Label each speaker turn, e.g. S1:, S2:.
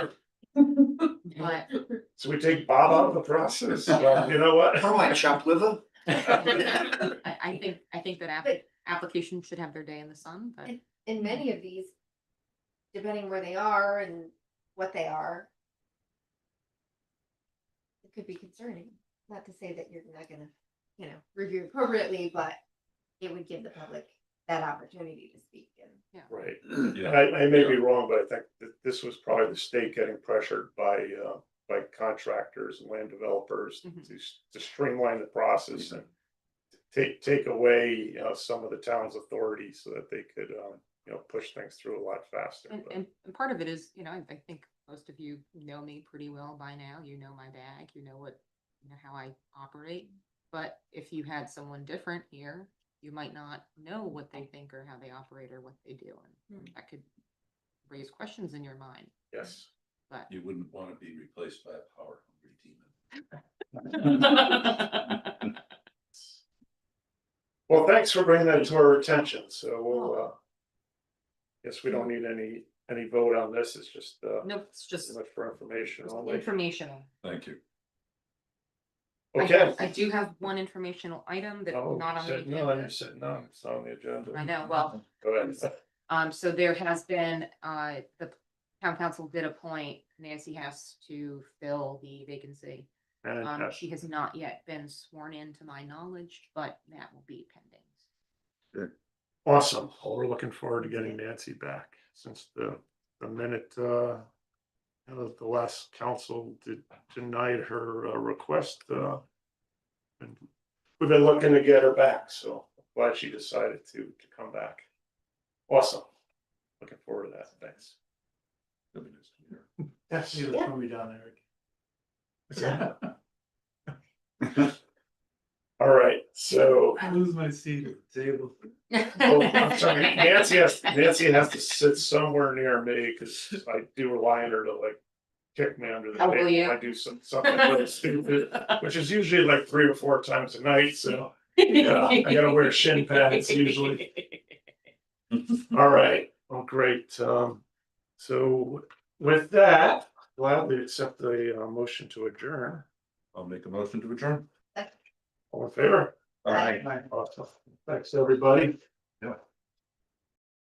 S1: but
S2: So we take Bob out of the process, Well, you know what?
S3: Oh, my chopped liver.
S1: um, I, I think, I think that app,
S4: But-
S1: applications should have their day in the sun, but.
S4: in many of these, depending where they are and what they are. It could be concerning, not to say that you're not gonna, you know, review appropriately, but it would give the public that opportunity to speak and.
S2: Right,
S3: Yeah.
S2: and I, I may be wrong, but I think that this was probably the state getting pressured by, uh, by contractors and land developers
S1: Mhm.
S2: to, s- to streamline the process and
S3: Mm-hmm.
S2: take, take away, you know, some of the town's authority so that they could, um, you know, push things through a lot faster.
S1: And,
S2: but-
S1: and, and part of it is, you know, I, I think most of you know me pretty well by now, you know my bag, you know what, you know how I operate. But if you had someone different here, you might not know what they think or how they operate or what they do, and that could raise questions in your mind,
S2: Yes,
S1: but.
S5: You wouldn't want to be replaced by a power hungry demon.
S2: well, thanks for bringing that to our attention, so
S1: Oh.
S2: we'll, uh, guess we don't need any, any vote on this, it's just, uh,
S1: No, it's
S2: pretty
S1: just
S2: much for information only.
S1: informational.
S5: Thank you.
S1: I-
S2: Okay.
S1: I do have one informational item that's
S2: Oh,
S1: not on the
S2: said No, you
S1: agenda.
S2: said no, it's not on the agenda.
S1: I know, well,
S2: Go ahead.
S1: Um, so there has been, uh, the town council did appoint Nancy Hess to fill the vacancy. Um,
S2: Fantastic.
S1: she has not yet been sworn in to my knowledge, but that will be pending.
S2: Awesome. Well, we're looking forward to getting Nancy back since the, the minute, uh, you know, the last council did denied her uh, request, uh, and we've been looking to get her back, so glad she decided to, to come back. Awesome. Looking forward to that. Thanks.
S5: Nothing is here.
S2: That's the
S4: Yeah.
S2: movie down there. All right, so.
S5: I lose my seat at the table.
S2: Oh, I'm sorry, Nancy has, Nancy has to sit somewhere near me, cause I do rely on her to like kick me under the
S1: Oh,
S2: table.
S1: will you?
S2: if I do some, something really stupid, which is usually like three or four times a night, so, yeah, I gotta wear shin pads usually. All right, well, great, um, so with that, gladly accept the, uh, motion to adjourn.
S5: I'll make a motion to adjourn.
S2: All in favor?
S5: All right.
S2: Awesome. Thanks, everybody.